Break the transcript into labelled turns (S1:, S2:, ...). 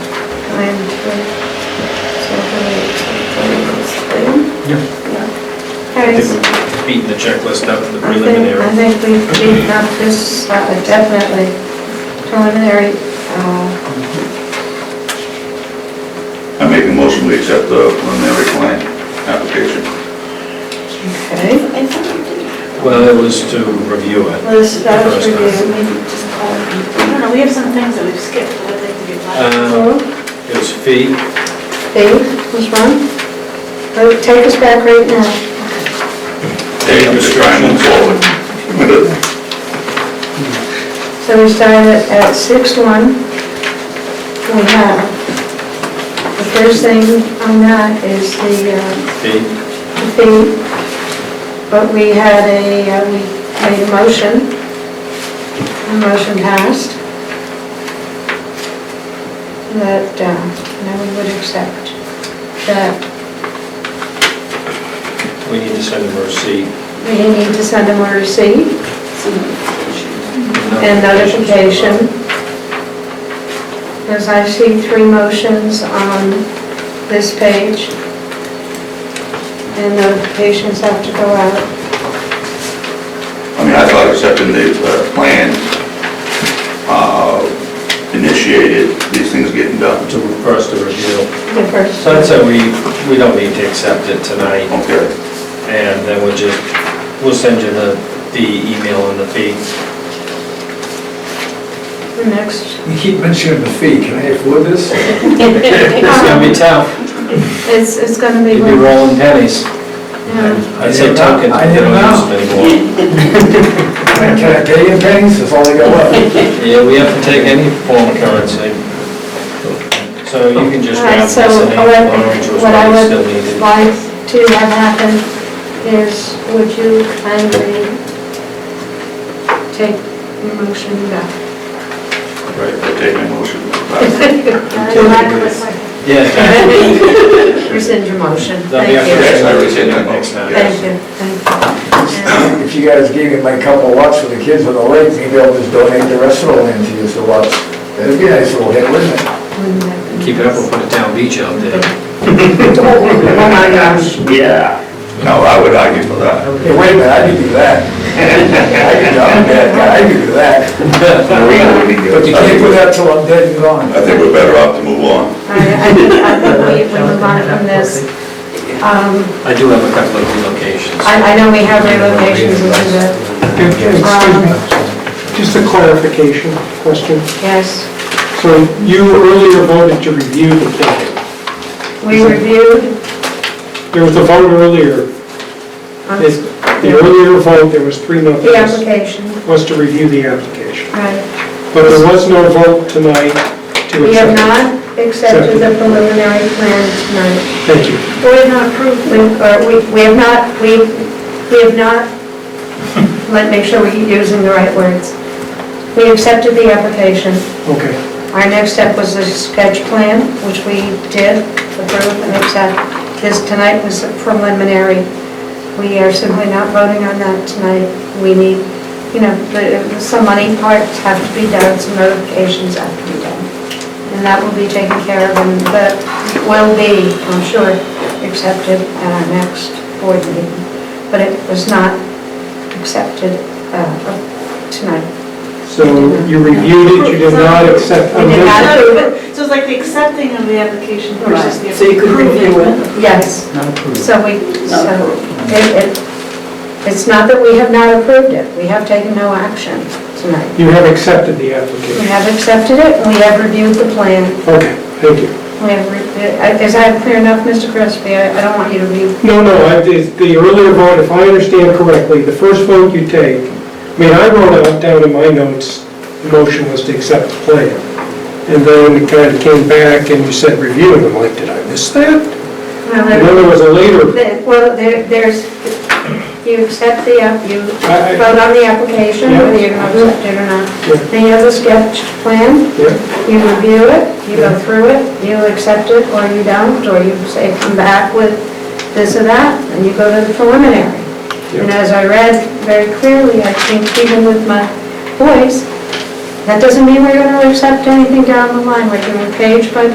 S1: time to, so hopefully, hopefully it's clean.
S2: Yeah.
S1: Yeah.
S2: I
S1: Okay, so
S2: think we've beaten the checklist up to the
S1: I think, I
S2: preliminary.
S1: think we've beaten up this, uh, definitely preliminary, uh,
S3: I make a motion to accept the preliminary plan application.
S1: okay.
S4: I thought you did.
S2: Well, it was to review it.
S4: Well, this, that was
S2: First time.
S4: reviewed, maybe just call it. I don't know, we have some things that we've skipped, but I'd like to get back.
S2: Um, It was fee,
S1: Dave, was wrong? Oh, Take us back right now.
S3: Hey, I'm just trying to move forward.
S1: So we started at six one. We have, the first thing on that is the, uh,
S2: fee,
S1: the fee. But we had a, uh, we made a motion. The motion passed. That, uh, now we would accept that
S2: we need to send them a receipt.
S1: we need to send them a receipt.
S4: Some notification.
S1: And notification. Because I see three motions on this page. And notifications have to go out.
S3: I mean, I thought accepting the uh, plan uh, initiated these things getting done.
S2: To, for us to review.
S1: The first,
S2: So I'd say we, we don't need to accept it tonight,
S3: Okay,
S2: and then we'll just, we'll send you the, the email and the fee.
S1: the next.
S5: You keep mentioning the fee, can I afford this?
S2: It's gonna be tough,
S1: It's, it's gonna be,
S2: you'd be
S1: yeah,
S2: rolling pennies. I'd say tuck it,
S5: I
S2: they
S5: didn't
S2: don't
S5: know.
S2: use it anymore.
S5: Can I- can I pay in pennies, that's all I got left?
S2: Yeah, we have to take any form of currency. So you can just
S1: All
S2: grab
S1: right,
S2: this
S1: so
S2: and
S1: what I-
S2: orange was
S1: what I
S2: what
S1: would
S2: you still needed.
S1: like to have happen is, would you kindly take the motion back?
S3: right, I take my motion.
S4: Uh, back with my-
S2: Yeah,
S1: Rescind your motion.
S2: That'll
S1: Thank
S2: be
S1: you.
S2: after
S3: Yes, I rescind that
S2: Next
S3: motion.
S2: time.
S1: Thank
S3: yes.
S1: you, thank you.
S5: If you guys gave me my couple lots for the kids on the lake, maybe I'll just donate the rest of the land to you, so lots. That'd be a nice little hit, wouldn't it?
S1: Wouldn't that be
S2: keep it up, we'll put a town beach out there.
S5: Oh my gosh.
S3: No, I would argue for that.
S5: Hey, wait a minute, I could do that. I could, I'm a bad guy, I could do that. But you can't do that till I'm dead and gone.
S3: I think we're better off to move on.
S1: I, I think, I think we, we move on from this. Um,
S2: I do have a couple of relocations.
S1: I, I know we have relocations into the,
S6: Excuse me, just a clarification question.
S1: yes.
S6: So you earlier voted to review the plan.
S1: We reviewed,
S6: There was a vote earlier,
S1: um,
S6: it- the earlier vote, there was three no
S1: the
S6: votes,
S1: application,
S6: was to review the application.
S1: right.
S6: But there was no vote tonight to accept.
S1: We have
S6: it.
S1: not accepted the preliminary plan tonight.
S6: Thank you.
S1: We have not approved, we- or we, we have not, we, we have not, let me make sure we're using the right words. We accepted the application.
S6: Okay.
S1: Our next step was the sketch plan, which we did approve and accept. This tonight was preliminary. We are simply not voting on that tonight. We need, you know, the- some money parts have to be done, some notifications have to be done. And that will be taken care of and that will be, I'm sure, accepted at our next board meeting. But it was not accepted uh, tonight.
S6: So you reviewed it, you did not accept.
S1: We did not approve it.
S4: So it's like the accepting of the application versus the.
S7: So you could review it.
S1: Yes. So we, so it, it- it's not that we have not approved it, we have taken no action tonight.
S6: You have accepted
S1: We
S6: the application.
S1: have accepted it, and we have reviewed the plan.
S6: Okay, thank you.
S1: We have, re- I- is that clear enough, Mr. Crespi? I I don't want you to be,
S6: No, no, I- the the earlier vote, if I understand correctly, the first vote you take, I mean, I wrote out down in my notes, the motion was to accept the plan. And then it kind of came back and you said review, and I'm like, did I miss that?
S1: well,
S6: And then
S1: there-
S6: there was a later,
S1: there- well, there, there's, you accept the, app- you
S6: I- I-
S1: vote on the application, whether you're going to accept it or
S6: Yeah.
S1: not. Then you have the sketch plan,
S6: yeah,
S1: You review it, you go through it, you accept it or you don't, or you say, come back with this or that, and you go to the preliminary. And as I read very clearly, I think even with my voice, that doesn't mean we're gonna accept anything down the line, we're doing page by